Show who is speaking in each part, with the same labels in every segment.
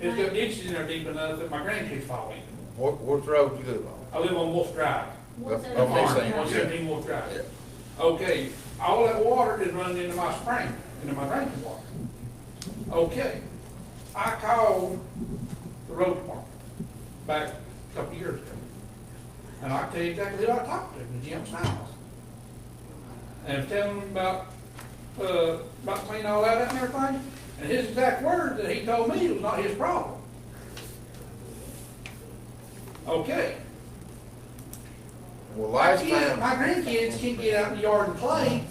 Speaker 1: There's got ditches in there deep enough that my grandkids fall in.
Speaker 2: What, what road you live on?
Speaker 1: I live on Wolf Drive.
Speaker 2: What's that?
Speaker 1: Farm,
Speaker 2: Okay, same.
Speaker 1: 117 Wolf
Speaker 2: Yeah.
Speaker 1: Drive. Okay, all that water is running into my spring, into my drinking water. Okay, I called the road department back a couple years ago. And I tell you exactly who I talked to, Jim Simon's. And telling him about, uh, about cleaning all that up and everything. And his exact words that he told me was not his problem. Okay,
Speaker 2: Well,
Speaker 1: my
Speaker 2: last
Speaker 1: kids,
Speaker 2: time,
Speaker 1: my grandkids can't get out in the yard and play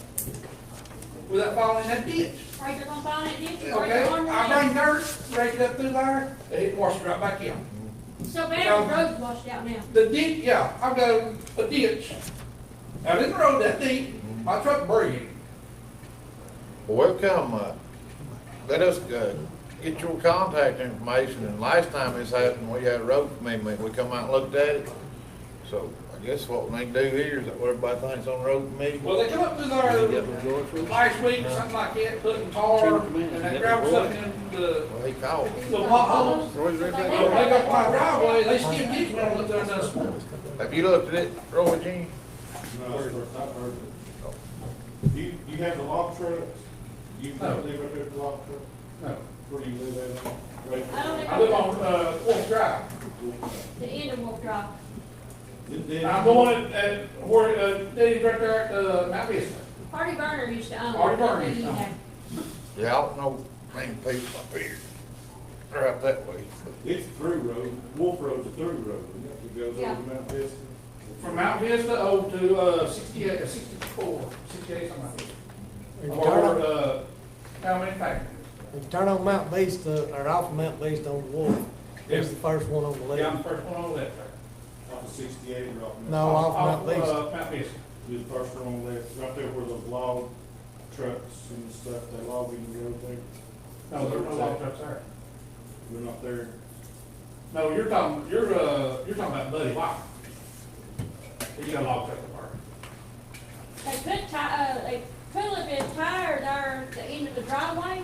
Speaker 1: without falling in that ditch.
Speaker 3: Right, you're gonna fall in it, you're
Speaker 1: Okay, I
Speaker 3: on
Speaker 1: bring dirt, break it up through there, and it washes right back in.
Speaker 3: the, so bad the road's washed out now.
Speaker 1: The ditch, yeah, I've got a ditch out in the road that deep, my truck buried it.
Speaker 2: well, welcome, uh, let us, uh, get your contact information, and last time this happened, we had a road commitment, we come out and looked at it. So, I guess what we need to do here is that what everybody thinks on road committee.
Speaker 1: Well, they come up through there last week, something like that, putting tar and that gravel stuff in the,
Speaker 2: Well, he called.
Speaker 1: the potholes.
Speaker 2: Roy's right
Speaker 1: They
Speaker 2: there.
Speaker 1: go up my driveway, they still ditch when I look there and done some.
Speaker 2: Have you looked at it, Roy Jean? Oh,
Speaker 4: No, I've heard, I've heard it. You, you have the log truck, you live
Speaker 1: No.
Speaker 4: up there with the log truck,
Speaker 1: No.
Speaker 4: where do you live at? Right.
Speaker 3: I don't
Speaker 1: I live on, uh, Wolf Drive.
Speaker 3: The end of Wolf Drive.
Speaker 4: Then- then-
Speaker 1: I'm going at- at where, uh, Diddy's right there at, uh, Mount Vista.
Speaker 3: Hardy Burner used to own. it.
Speaker 1: Hardy Burner used to own it.
Speaker 2: Yeah, I don't know, many people up here, they're out that way.
Speaker 4: It's a through road, Wolf Road's a through road, it goes over
Speaker 3: Yeah.
Speaker 4: to Mount Vista.
Speaker 1: From Mount Vista over to, uh, sixty-eight, uh, sixty-four, sixty-eight, something like
Speaker 5: If
Speaker 1: that.
Speaker 5: you
Speaker 1: Or,
Speaker 5: turn on-
Speaker 1: uh, how many factors?
Speaker 5: if you turn on Mount Vista, or off of Mount Vista on Wolf, there's the first one on the
Speaker 1: Yeah, I'm
Speaker 5: left.
Speaker 1: the first one over that there.
Speaker 4: Off of sixty-eight or off of.
Speaker 5: No, off Mount
Speaker 1: uh,
Speaker 5: Vista.
Speaker 1: Mount Vista.
Speaker 4: You're the first one on the left, right there where those log trucks and stuff, they log in the road there,
Speaker 1: No, there's no Oh, log trucks there.
Speaker 4: we're not there.
Speaker 1: No, you're talking, you're, uh, you're talking about Buddy White. You got a log truck apart.
Speaker 3: They put ti, uh, they put a little bit of tire there at the end of the driveway.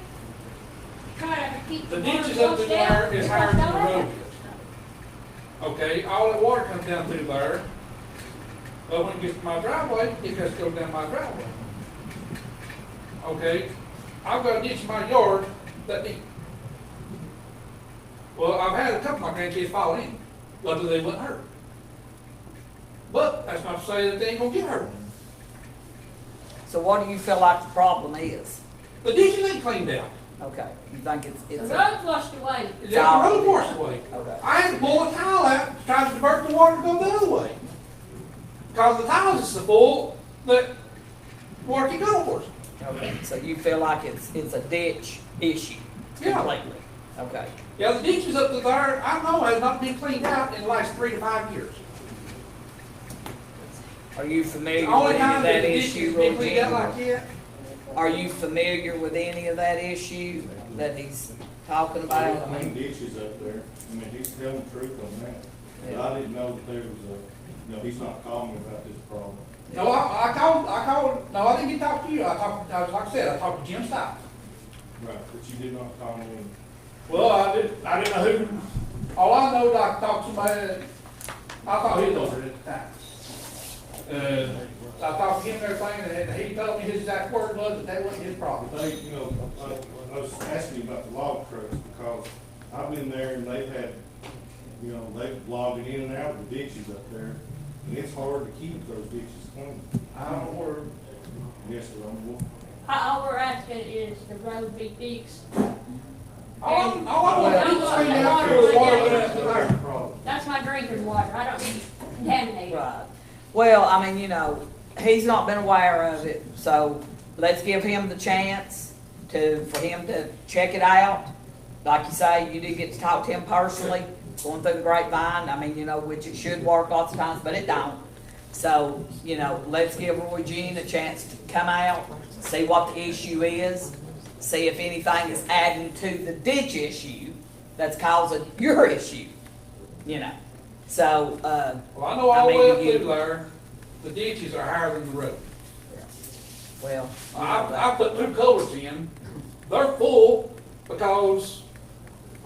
Speaker 3: Try to keep the
Speaker 1: The
Speaker 3: water
Speaker 1: ditch is up to
Speaker 3: flushed out.
Speaker 1: there, it's higher than the road is. Okay, all that water comes down through there, but when it gets to my driveway, it just goes down my driveway. Okay, I've got a ditch in my yard that deep. Well, I've had a couple of my grandkids fall in, luckily they wasn't hurt. But that's not to say that they ain't gonna get hurt.
Speaker 6: So what do you feel like the problem is?
Speaker 1: The ditch ain't cleaned out.
Speaker 6: Okay, you think it's,
Speaker 3: The
Speaker 6: it's, a-
Speaker 3: road flushed away.
Speaker 1: It's out the road washed away.
Speaker 6: Okay.
Speaker 1: I had to pull a tile out, trying to divert the water to go the other way. Cause the tiles is so full, that water can go over.
Speaker 6: okay, so you feel like it's, it's a ditch issue
Speaker 1: Yeah.
Speaker 6: completely? Okay,
Speaker 1: Yeah, the ditches up to there, I know has not been cleaned out in the last three to five years.
Speaker 6: are you familiar
Speaker 1: The
Speaker 6: with
Speaker 1: only
Speaker 6: any of
Speaker 1: time that
Speaker 6: that
Speaker 1: the ditches
Speaker 6: issue,
Speaker 1: been cleaned out
Speaker 6: Roger?
Speaker 1: like that,
Speaker 6: Are you familiar with any of that issue that he's talking about? I
Speaker 4: Clean
Speaker 6: mean,
Speaker 4: ditches up there, I mean, he's telling the truth on that, but
Speaker 6: Yeah.
Speaker 4: I didn't know that there was a, no, he's not calling me about this problem.
Speaker 1: no, I, I called, I called, no, I didn't get to talk to you, I talked, I was- like I said, I talked to Jim Stiles.
Speaker 4: Right, but you did not call me.
Speaker 1: Well, I didn't, I didn't know who, all I know, I talked to my, I thought he was over it at the time. Uh, I talked to him and everything, and he told me his exact word was that that wasn't his problem.
Speaker 4: They, you know, I, I was asking you about the log trucks because I've been there and they've had, you know, they've logged in and out of the ditches up there. And it's hard to keep those ditches clean.
Speaker 1: I don't know where,
Speaker 4: Yes, sir, I'm, well,
Speaker 3: All all we're asking is the road be fixed.
Speaker 1: all I'm, all I want to do is clean out the water went up to
Speaker 4: that's
Speaker 1: there.
Speaker 4: the problem.
Speaker 3: That's my drinking water, I don't need contaminated.
Speaker 6: Right, well, I mean, you know, he's not been aware of it, so let's give him the chance to, for him to check it out. Like you say, you did get to talk to him personally, going through the grapevine, I mean, you know, which it should work lots of times, but it don't. So, you know, let's give Roy Jean a chance to come out, see what the issue is, see if anything is adding to the ditch issue that's causing your issue, you know? So, uh,
Speaker 1: Well, I know all the way up through there, the ditches are higher than the road.
Speaker 6: Well. you know
Speaker 1: I, I
Speaker 6: that.
Speaker 1: put two culverts in, they're full because